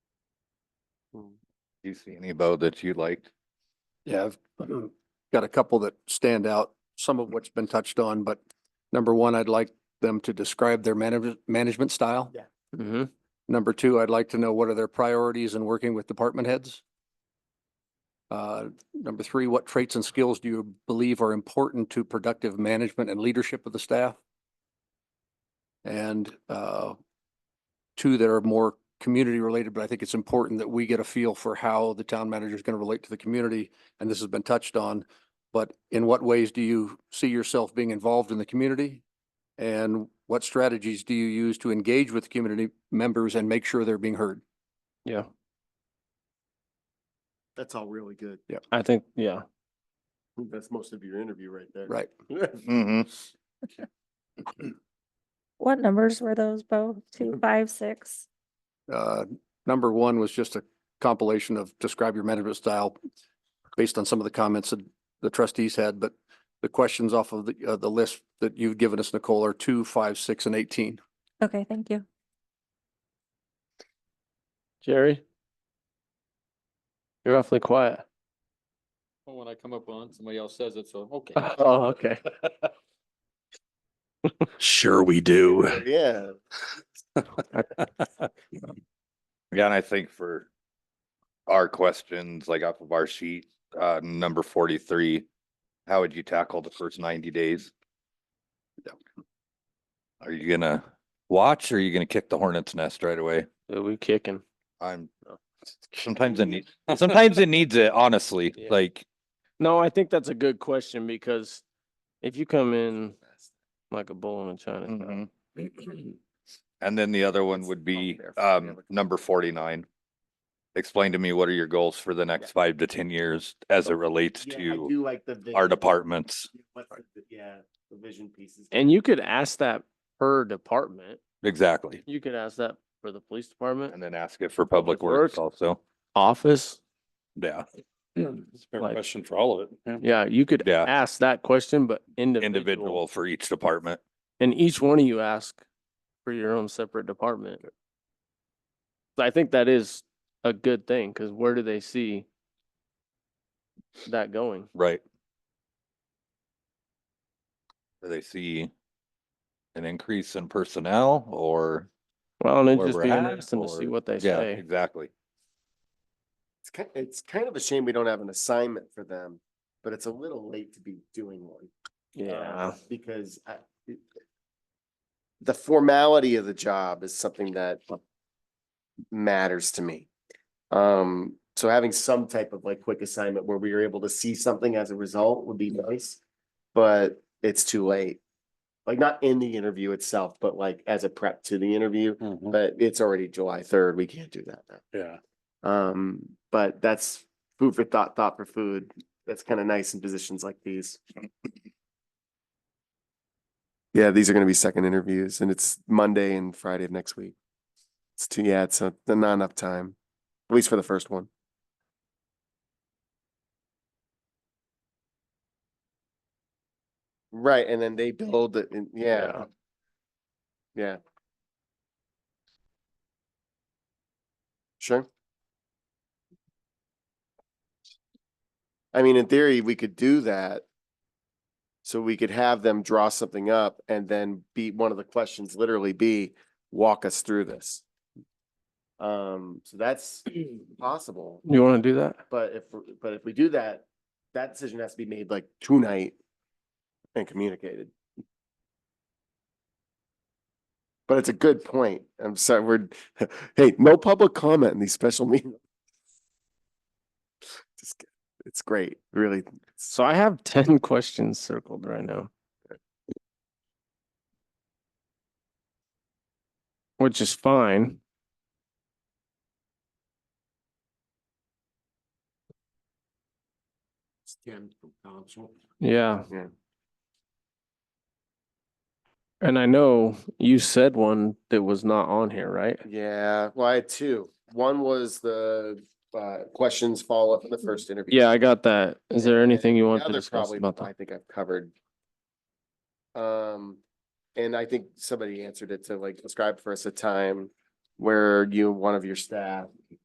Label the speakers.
Speaker 1: Do you see any though that you liked?
Speaker 2: Yeah, I've um, got a couple that stand out, some of which has been touched on, but number one, I'd like them to describe their management, management style.
Speaker 3: Yeah.
Speaker 4: Mm-hmm.
Speaker 2: Number two, I'd like to know what are their priorities in working with department heads? Uh, number three, what traits and skills do you believe are important to productive management and leadership of the staff? And, uh, two that are more community related, but I think it's important that we get a feel for how the town manager is going to relate to the community. And this has been touched on, but in what ways do you see yourself being involved in the community? And what strategies do you use to engage with community members and make sure they're being heard?
Speaker 4: Yeah,
Speaker 3: That's all really good.
Speaker 4: I think, yeah.
Speaker 3: That's most of your interview right there.
Speaker 2: Right.
Speaker 1: Mm-hmm.
Speaker 5: What numbers were those, Bo? Two, five, six?
Speaker 2: Uh, number one was just a compilation of describe your management style based on some of the comments that the trustees had, but the questions off of the, uh, the list that you've given us, Nicole, are two, five, six, and eighteen.
Speaker 5: Okay, thank you.
Speaker 4: Jerry? You're awfully quiet.
Speaker 6: Well, when I come up on, somebody else says it, so, okay.
Speaker 4: Oh, okay.
Speaker 7: Sure we do.
Speaker 3: Yeah.
Speaker 1: Yeah, and I think for our questions, like off of our sheet, uh, number forty-three, how would you tackle the first ninety days? Are you gonna watch or are you gonna kick the hornet's nest right away?
Speaker 4: Dude, we kicking.
Speaker 1: I'm, sometimes it needs, sometimes it needs it, honestly,
Speaker 4: Yeah.
Speaker 1: like,
Speaker 4: No, I think that's a good question because if you come in like a bull in a china
Speaker 1: mhm. and then the other one would be, um, number forty-nine. Explain to me, what are your goals for the next five to ten years as it relates
Speaker 3: Yeah, I
Speaker 1: to
Speaker 3: do like the
Speaker 1: our
Speaker 3: vision.
Speaker 1: departments?
Speaker 3: What's the- Yeah, the vision pieces.
Speaker 4: and you could ask that per department.
Speaker 1: Exactly.
Speaker 4: You could ask that for the police
Speaker 1: And
Speaker 4: department,
Speaker 1: then ask it for public works
Speaker 4: works.
Speaker 1: also.
Speaker 4: office.
Speaker 1: Yeah,
Speaker 4: Like-
Speaker 7: Question for all of it.
Speaker 4: Yeah, you could
Speaker 1: Yeah.
Speaker 4: ask that question, but
Speaker 1: individual for each department.
Speaker 4: And each one of you ask for your own separate department. So I think that is a good thing, because where do they see that going?
Speaker 1: Right. Do they see an increase in personnel or?
Speaker 4: Well, and it'd
Speaker 1: where
Speaker 4: just
Speaker 1: we're
Speaker 4: be
Speaker 1: at,
Speaker 4: interesting to see
Speaker 1: or-
Speaker 4: what they
Speaker 1: Yeah,
Speaker 4: say.
Speaker 1: Exactly.
Speaker 3: It's kind, it's kind of a shame we don't have an assignment for them, but it's a little late to be doing one. um,
Speaker 4: Yeah,
Speaker 3: Because I, it- the formality of the job is something that matters to me. Um, so having some type of like quick assignment where we are able to see something as a result would be nice, but it's too late. Like not in the interview itself, but like as a prep to the interview, but it's already July third. We can't do that now.
Speaker 7: Yeah.
Speaker 3: Um, but that's food for thought, thought for food. That's kind of nice in positions like these. Yeah, these are gonna be second interviews and it's Monday and Friday of next week. It's too, yeah, it's a, not enough time, at least for the first one. Right, and then they build it, and- yeah. Yeah. Sure. I mean, in theory, we could do that. So we could have them draw something up and then be, one of the questions literally be, walk us through this. Um, so that's possible,
Speaker 4: you want to do that?
Speaker 3: but if, but if we do that, that decision has to be made like tonight and communicated. But it's a good point. I'm sorry, we're, hey, no public comment in these special meetings. Just, kid- it's great, really.
Speaker 4: So I have ten questions circled right now. Which is fine. Yeah.
Speaker 3: Yeah.
Speaker 4: And I know you said one that was not on here, right?
Speaker 3: Yeah, well, I had two. One was the uh questions follow up in the first interview.
Speaker 4: Yeah, I got that. Is there
Speaker 3: And
Speaker 4: anything you
Speaker 3: the
Speaker 4: want to
Speaker 3: other
Speaker 4: discuss
Speaker 3: probably
Speaker 4: about that?
Speaker 3: I think I've covered. Um, and I think somebody answered it to like describe for us a time where you, one of your staff